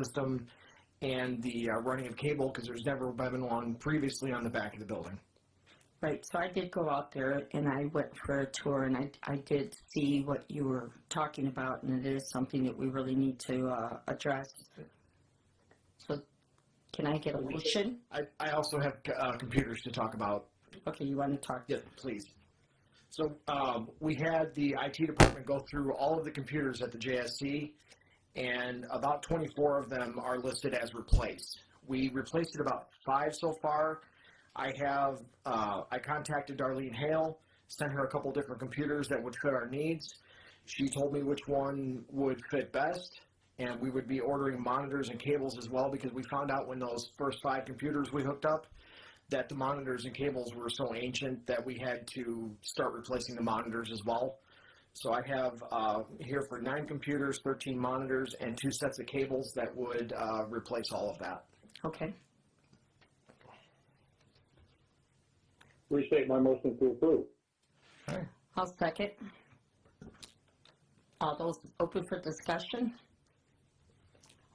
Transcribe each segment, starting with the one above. system and the uh, running of cable, because there's never been one previously on the back of the building. Right, so I did go out there and I went for a tour and I, I did see what you were talking about and it is something that we really need to, uh, address. So, can I get a motion? I, I also have uh, computers to talk about. Okay, you wanna talk? Yes, please. So um, we had the IT department go through all of the computers at the JSC, and about 24 of them are listed as replaced. We replaced it about five so far. I have uh, I contacted Darlene Hale, sent her a couple different computers that would fit our needs. She told me which one would fit best, and we would be ordering monitors and cables as well because we found out when those first five computers we hooked up that the monitors and cables were so ancient that we had to start replacing the monitors as well. So I have uh, here for nine computers, 13 monitors, and two sets of cables that would uh, replace all of that. Okay, Restate my motion to approve. I'll second. All those open for discussion?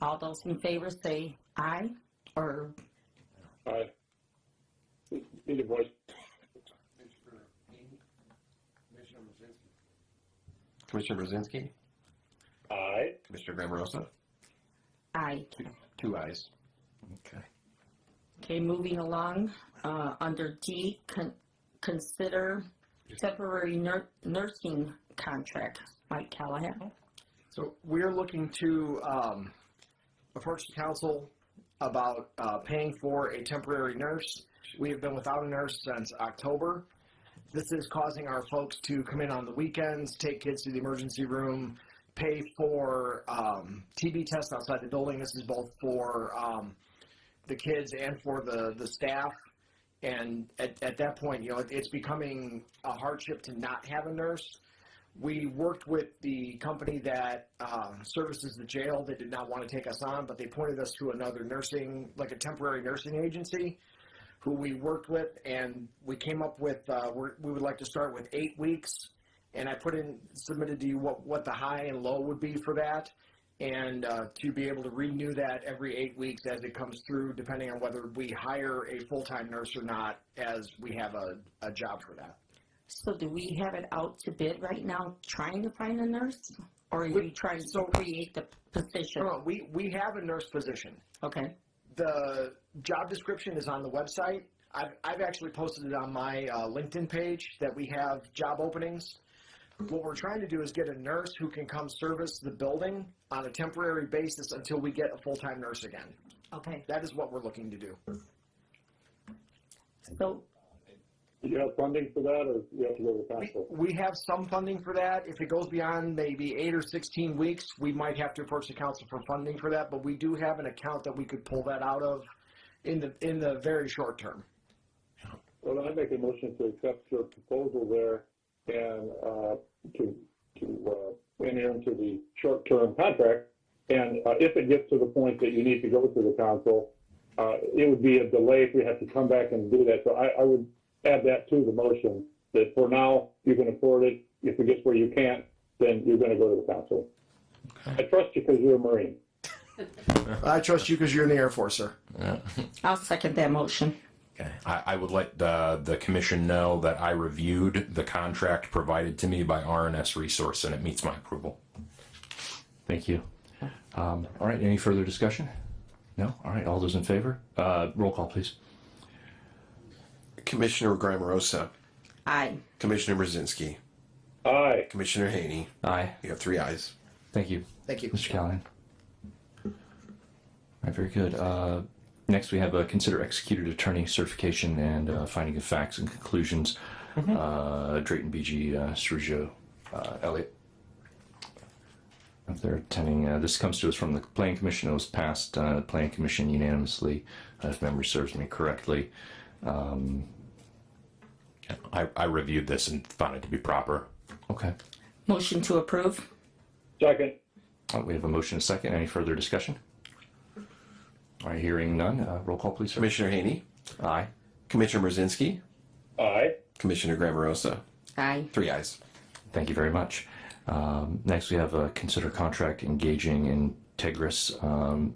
All those in favor say aye or, Aye. Need a voice. Commissioner Brzezinski, Aye. Commissioner Grammerosa, aye. two eyes. Okay, moving along, uh, under D, con- consider temporary nur- nursing contract. Mike Oh. Callahan? So we're looking to um, approach the council about uh, paying for a temporary nurse. We have been without a nurse since October. This is causing our folks to come in on the weekends, take kids to the emergency room, pay for um, TB tests outside the building. This is both for um, the kids and for the, the staff. And at, at that point, you know, it, it's becoming a hardship to not have a nurse. We worked with the company that um, services the jail. They did not want to take us on, but they pointed us to another nursing, like a temporary nursing agency, who we worked with, and we came up with uh, we're, we would like to start with eight weeks. And I put in submitted to you what what the high and low would be for that, and uh, to be able to renew that every eight weeks as it comes through, depending on whether we hire a full time nurse or not, as we have a, a job for that. So do we have it out to bid right now, trying to find a nurse? Or are you We- trying to so- Oh. create the position? No, no, we we have a nurse position. Okay, the job description is on the website. I've, I've actually posted it on my uh, LinkedIn page that we have job openings. What we're trying to do is get a nurse who can come service the building on a temporary basis until we get a full time nurse again. okay. That is what we're looking to do. So, Do you have funding for that, or you have to go to the We, council? we have some funding for that. If it goes beyond maybe eight or 16 weeks, we might have to approach the council for funding for that, but we do have an account that we could pull that out of in the, in the very short term. Well, I make a motion to accept your proposal there and, uh, to, to, uh, enter into the short-term contract. And, uh, if it gets to the point that you need to go to the council, uh, it would be a delay if we have to come back and do that. So I, I would add that to the motion, that for now, you can afford it. If it gets where you can't, then you're gonna go to the council. I trust you because you're a Marine. I trust you because you're in the Air Force, sir. I'll second that motion. Okay. I, I would let the, the commission know that I reviewed the contract provided to me by RNS Resource and it meets my approval. Thank you. Um, all right, any further discussion? No? All right, all those in favor? Uh, roll call, please. Commissioner Grammerosa, Aye. Commissioner Brzezinski, Aye. Commissioner Haney. Aye. You have three eyes. Thank you, Thank you. Mr. Callahan. All right, very good. Uh, next, we have uh, consider executed attorney certification and uh, finding of facts and conclusions. Uh, Drayton BG, uh, Sergio uh, Elliott. They're attending. Uh, this comes to us from the Plan Commission. It was passed uh, Plan Commission unanimously, uh, if memory serves me correctly. Um, I, I reviewed this and found it to be proper. Okay. Motion to approve? Second. All right, we have a motion and a second. Any further discussion? All right, hearing none. Uh, roll call, please. sir. Commissioner Haney, Aye. Commissioner Brzezinski, Aye. Commissioner Grammerosa, Aye. three eyes. Thank you very much. Um, next, we have uh, consider contract engaging Integris um,